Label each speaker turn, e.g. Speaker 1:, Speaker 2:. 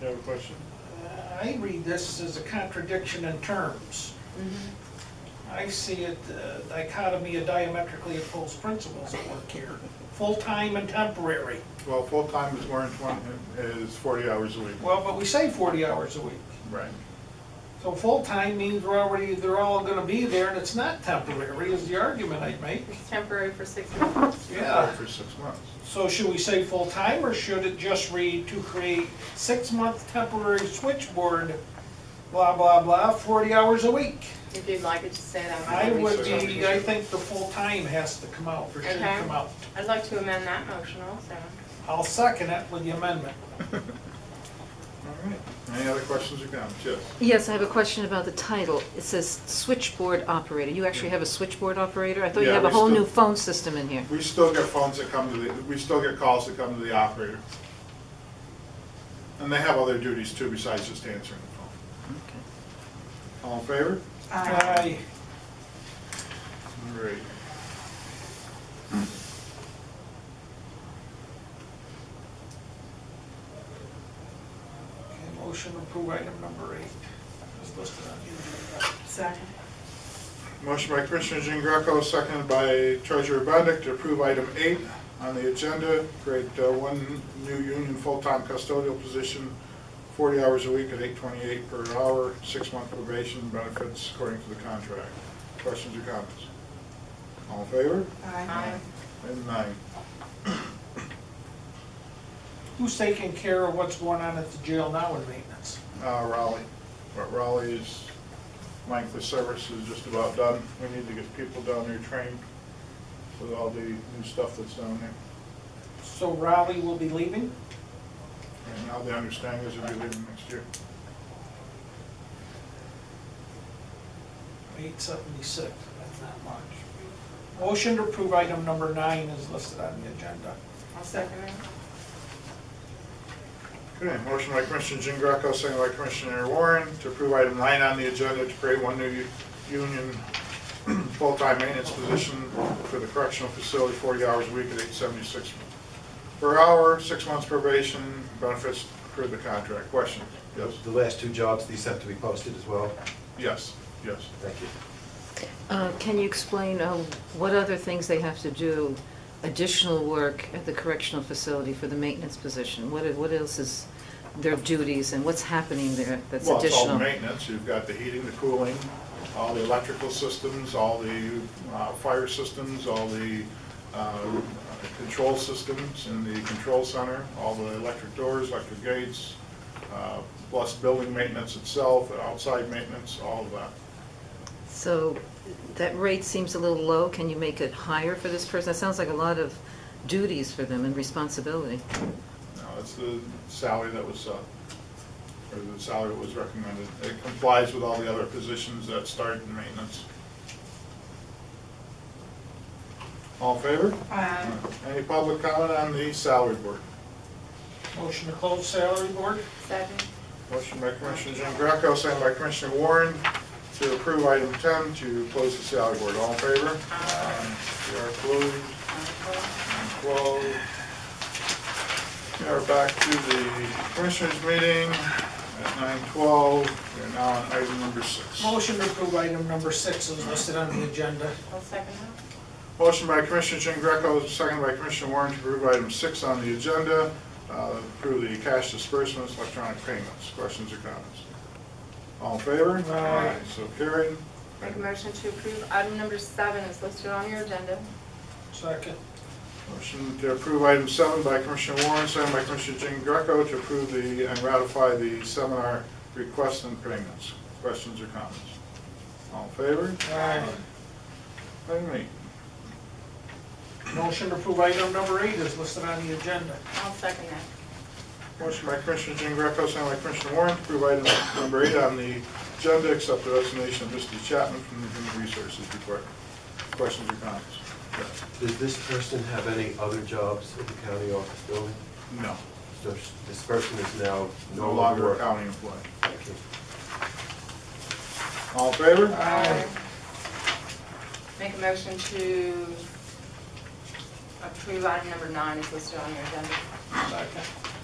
Speaker 1: You have a question?
Speaker 2: I read this as a contradiction in terms. I see it uh, dichotomy of diametrically opposed principles at work here, full-time and temporary.
Speaker 1: Well, full-time is more than twenty, is forty hours a week.
Speaker 2: Well, but we say forty hours a week.
Speaker 1: Right.
Speaker 2: So full-time means we're already, they're all gonna be there and it's not temporary is the argument I'd make.
Speaker 3: It's temporary for six months.
Speaker 2: Yeah.
Speaker 1: For six months.
Speaker 2: So should we say full-time or should it just read to create six-month temporary switchboard, blah, blah, blah, forty hours a week?
Speaker 3: If you'd like it to say that.
Speaker 2: I would be, I think the full-time has to come out, or should
Speaker 3: Okay.
Speaker 2: come out.
Speaker 3: I'd like to amend that motion also.
Speaker 2: I'll second it with the amendment.
Speaker 1: All right. Any other questions or comments? Yes.
Speaker 4: Yes, I have a question about the title. It says switchboard operator. You actually have a switchboard operator? I thought you
Speaker 1: Yeah,
Speaker 4: have a
Speaker 1: we
Speaker 4: whole
Speaker 1: still-
Speaker 4: new phone system in here.
Speaker 1: We still get phones that come to the, we still get calls that come to the operator. And they have other duties too besides just answering the
Speaker 4: Okay.
Speaker 1: phone. All in favor?
Speaker 2: Aye.
Speaker 1: All right.
Speaker 2: Okay, Motion to approve item number eight is listed on the agenda.
Speaker 3: Second.
Speaker 1: Motion by Commissioner Jean Greco, seconded by Treasurer Bendick to approve item eight on the agenda, create uh, one new union full-time custodial position, 40 hours a week at 8.28 per hour, six-month probation benefits according to the contract. Questions or comments? All in favor?
Speaker 3: Aye.
Speaker 1: Item nine.
Speaker 2: Who's taking care of what's going on at the jail now in maintenance?
Speaker 1: Uh, Raleigh. But Raleigh's length of service is just about done. We need to get people down there trained with all the new stuff that's down there.
Speaker 2: So Raleigh will be leaving?
Speaker 1: And now the understanding is it'll be leaving next year.
Speaker 2: Eight seventy-six, that's not much. Motion to approve item number nine is listed on the agenda.
Speaker 3: I'll second it.
Speaker 1: Okay, motion by Commissioner Jean Greco, second by Commissioner Warren to approve item nine on the agenda to create one new u- union full-time maintenance position for the correctional facility, forty hours a week at eight seventy-six per hour, six months probation, benefits per the contract. Questions? Yes?
Speaker 5: The last two jobs, these have to be posted as well?
Speaker 1: Yes, yes.
Speaker 5: Thank you.
Speaker 4: Uh, Can you explain uh, what other things they have to do, additional work at the correctional facility for the maintenance position? What what else is their duties and what's happening there that's
Speaker 1: Well, it's all
Speaker 4: additional?
Speaker 1: maintenance, you've got the heating, the cooling, all the electrical systems, all the uh, fire systems, all the uh, control systems in the control center, all the electric doors, electric gates, uh, plus building maintenance itself, outside maintenance, all of that.
Speaker 4: So that rate seems a little low. Can you make it higher for this person? That sounds like a lot of duties for them and responsibility.
Speaker 1: Now, that's the salary that was, uh, or the salary that was recommended. It complies with all the other positions that start in maintenance. All in favor?
Speaker 3: Aye.
Speaker 1: Any public comment on the salary board?
Speaker 2: Motion to close salary board?
Speaker 3: Second.
Speaker 1: Motion by Commissioner Jean Greco, second by Commissioner Warren to approve item 10 to close the salary board. All in favor? Aye. We are closed, and closed. We are back to the commissioners' meeting at 9:12. We are now on item number six.
Speaker 2: Motion to approve item number six is listed on the agenda.
Speaker 3: I'll second that.
Speaker 1: Motion by Commissioner Jean Greco, second by Commissioner Warren to approve item six on the agenda, uh, approve the cash disbursements, electronic payments. Questions or comments? All in favor? Aye. So carried.
Speaker 3: Make a motion to approve item number seven is listed on your agenda.
Speaker 2: Second.
Speaker 1: Motion to approve item seven by Commissioner Warren, second by Commissioner Jean Greco to approve the, and ratify the seminar requests and payments. Questions or comments? All in favor?
Speaker 2: Aye.
Speaker 1: Item eight.
Speaker 2: Motion to approve item number eight is listed on the agenda.
Speaker 3: I'll second that.
Speaker 1: Motion by Commissioner Jean Greco, second by Commissioner Warren, to approve item number eight on the agenda, accept the resignation of Misty Chapman from the Human Resources Department. Questions or comments?
Speaker 5: Does this person have any other jobs at the county office building?
Speaker 1: No.
Speaker 5: So sh- This person is now
Speaker 1: No longer a
Speaker 5: working.
Speaker 1: county employee.
Speaker 5: Thank you.
Speaker 1: All in favor?
Speaker 3: Make a motion to approve item number nine is listed on your agenda.
Speaker 2: Second.